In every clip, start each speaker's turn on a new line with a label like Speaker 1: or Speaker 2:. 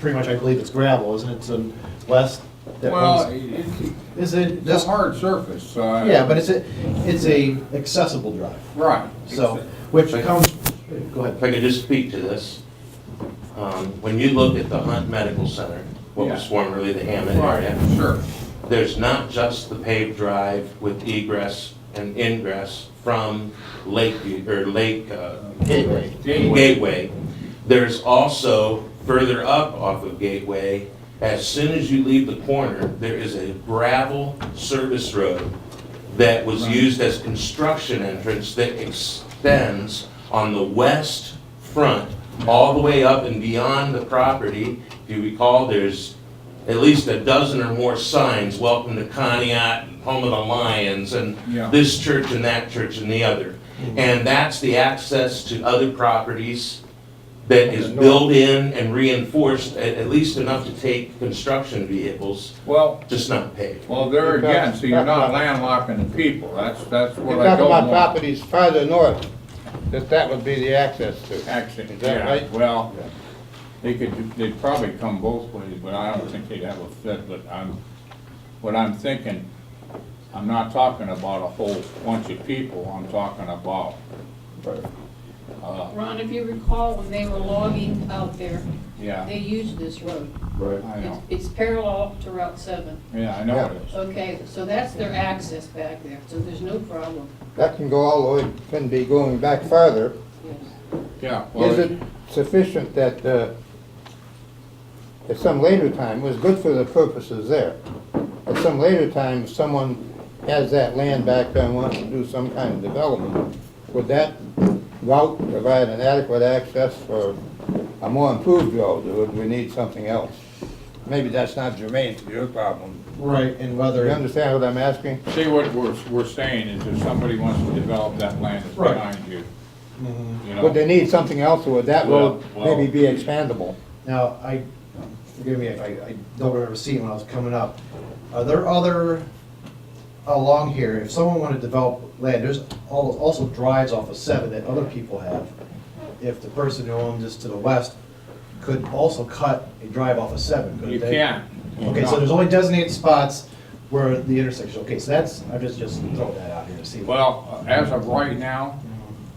Speaker 1: pretty much, I believe it's gravel, isn't it, so west? that
Speaker 2: Well,
Speaker 1: runs-
Speaker 2: it-
Speaker 1: Is it,
Speaker 2: it's a hard surface, so. uh, I-
Speaker 1: yeah, but it's a, it's a accessible drive,
Speaker 2: Right.
Speaker 1: so, which comes, go
Speaker 3: If
Speaker 1: ahead.
Speaker 3: I could just speak to this, um, when you look at the Hunt Medical Center, what was
Speaker 2: Yeah.
Speaker 3: formerly the Hammond
Speaker 2: Right,
Speaker 3: area,
Speaker 2: sure.
Speaker 3: there's not just the paved drive with egress and ingress from Lakeview, or Lake, uh,
Speaker 1: Gateway.
Speaker 3: Gateway. There's also further up off of Gateway, as soon as you leave the corner, there is a gravel service road that was used as construction entrance that extends on the west front, all the way up and beyond the property. If you recall, there's at least a dozen or more signs, welcome to Conneaut, home of the Lions, and
Speaker 2: Yeah.
Speaker 3: this church and that church and the other. And that's the access to other properties that is built in and reinforced, at, at least enough to take construction vehicles,
Speaker 2: Well,
Speaker 3: just not paved.
Speaker 2: well, there again, so you're not landlocking the people. That's, that's
Speaker 4: You're
Speaker 2: what I
Speaker 4: talking
Speaker 2: don't
Speaker 4: about
Speaker 2: want.
Speaker 4: properties farther north, that that would be the access to.
Speaker 2: Actually,
Speaker 4: Is that
Speaker 2: yeah,
Speaker 4: right?
Speaker 2: well, they could, they'd probably come both ways, but I don't think they'd have a fit, but I'm, what I'm thinking, I'm not talking about a whole bunch of people, I'm talking about, uh,
Speaker 5: Ron, if you recall, when they were logging out there,
Speaker 2: yeah,
Speaker 5: they used this road.
Speaker 1: Right.
Speaker 2: I
Speaker 5: It's
Speaker 2: know,
Speaker 5: it's parallel to Route 7.
Speaker 2: yeah, I know it is.
Speaker 5: Okay, so that's their access back there, so there's no problem.
Speaker 4: That can go all the way, can be going back farther.
Speaker 5: Yes.
Speaker 2: Yeah. well,
Speaker 4: Is it sufficient that, uh, at some later time, was good for the purposes there? At some later time, if someone has that land back there and wants to do some kind of development, would that route provide an adequate access for a more improved road, or would we need something else? Maybe that's not germane to your problem.
Speaker 1: Right, and
Speaker 4: Do you
Speaker 1: whether,
Speaker 4: understand what I'm asking?
Speaker 2: See, what we're, we're saying is if somebody wants to develop that land that's
Speaker 1: Right.
Speaker 2: behind you, you know.
Speaker 4: Would they need something else, or would that road
Speaker 2: Well, well-
Speaker 4: maybe be expandable?
Speaker 1: now, I, forgive me, if I, I don't remember seeing when I was coming up. Are there other, along here, if someone wanted to develop land, there's al- also drives off of seven that other people have. If the person who owned this to the west could also cut a drive off of seven, couldn't
Speaker 2: You
Speaker 1: they?
Speaker 2: can't.
Speaker 1: Okay, so there's only designated spots where the intersection, okay, so that's, I'm just, just throwing that out here to see.
Speaker 2: Well, as of right now,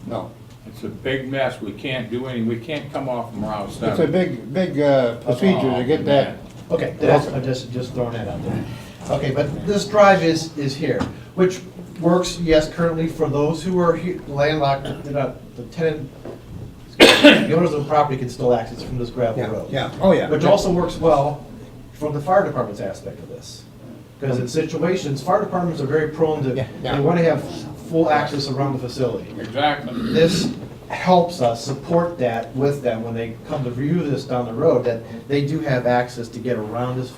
Speaker 4: No.
Speaker 2: it's a big mess. We can't do any, we can't come off from Route
Speaker 4: It's a
Speaker 2: seven.
Speaker 4: big, big uh, procedure to get that.
Speaker 1: Okay, that's, I'm just, just throwing that out there. Okay, but this drive is, is here, which works, yes, currently for those who are he- landlocked, they're not, the tenant, the owners of the property can still access from this gravel road.
Speaker 4: oh,
Speaker 1: Which also works well from the fire department's aspect of this. Because in situations, fire departments are very prone to,
Speaker 4: Yeah, yeah.
Speaker 1: they want to have full access around the facility.
Speaker 2: Exactly.
Speaker 1: This helps us support that with them when they come to review this down the road, that they do have access to get around this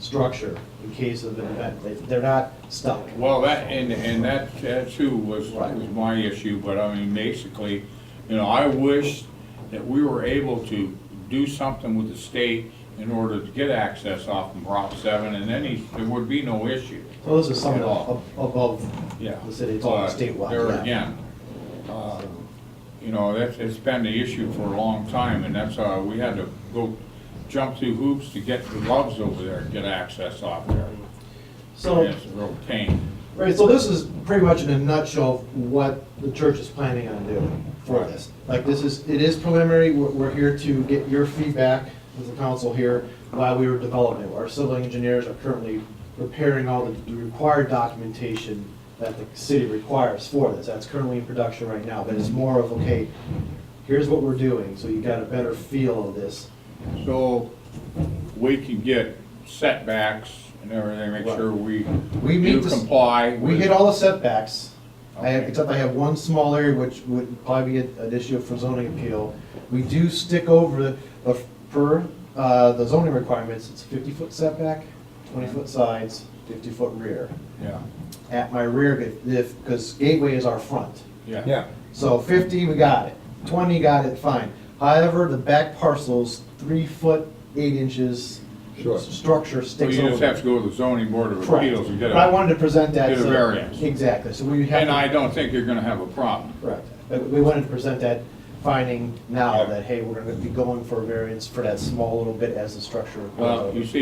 Speaker 1: structure in case of an event. They- They're not stuck.
Speaker 2: Well, that, and, and that, that too was, was my issue, but I mean, basically, you know, I wish that we were able to do something with the state in order to get access off from Route seven, and then he- there would be no issue.
Speaker 1: So this is something ab- above
Speaker 2: Yeah.
Speaker 1: the city, it's all
Speaker 2: But
Speaker 1: statewide.
Speaker 2: There
Speaker 1: yeah.
Speaker 2: again, uh, you know, that's, it's been the issue for a long time, and that's, uh, we had to go jump through hoops to get the gloves over there, get access off there.
Speaker 1: So-
Speaker 2: It's a real pain.
Speaker 1: Right, so this is pretty much in a nutshell what the church is planning on doing for this. Like, this is, it is preliminary, we're, we're here to get your feedback as a council here while we were developing. it. Our civil engineers are currently preparing all the required documentation that the city requires for this. That's currently in production right now, but it's more of, okay, here's what we're doing, so you got a better feel of this.
Speaker 2: So we can get setbacks and everything, make sure we
Speaker 1: We
Speaker 2: do
Speaker 1: meet the-
Speaker 2: comply.
Speaker 1: We hit all the setbacks, I have,
Speaker 2: Okay.
Speaker 1: except I have one small area which would probably be an an issue for zoning appeal. We do stick over, the per, uh, the zoning requirements, it's fifty foot setback, twenty foot sides, fifty foot rear.
Speaker 2: Yeah,
Speaker 1: At my rear, if- if, because gateway is our front,
Speaker 2: yeah.
Speaker 1: so fifty, we got it, twenty, got it, fine. However, the back parcel's three foot, eight inches,
Speaker 4: Sure.
Speaker 1: structure
Speaker 2: So
Speaker 1: sticks
Speaker 2: you just have
Speaker 1: over.
Speaker 2: to go to the zoning board of
Speaker 1: Correct.
Speaker 2: appeals and get
Speaker 1: But I
Speaker 2: a,
Speaker 1: wanted to present that,
Speaker 2: get a
Speaker 1: so-
Speaker 2: variance.
Speaker 1: Exactly, so we have.
Speaker 2: and
Speaker 1: to-
Speaker 2: I don't think you're gonna have a problem.
Speaker 1: Correct. But We wanted to present that finding now
Speaker 2: Yeah.
Speaker 1: that, hey, we're gonna be going for a variance for that small little bit as the structure.
Speaker 2: Well, you see,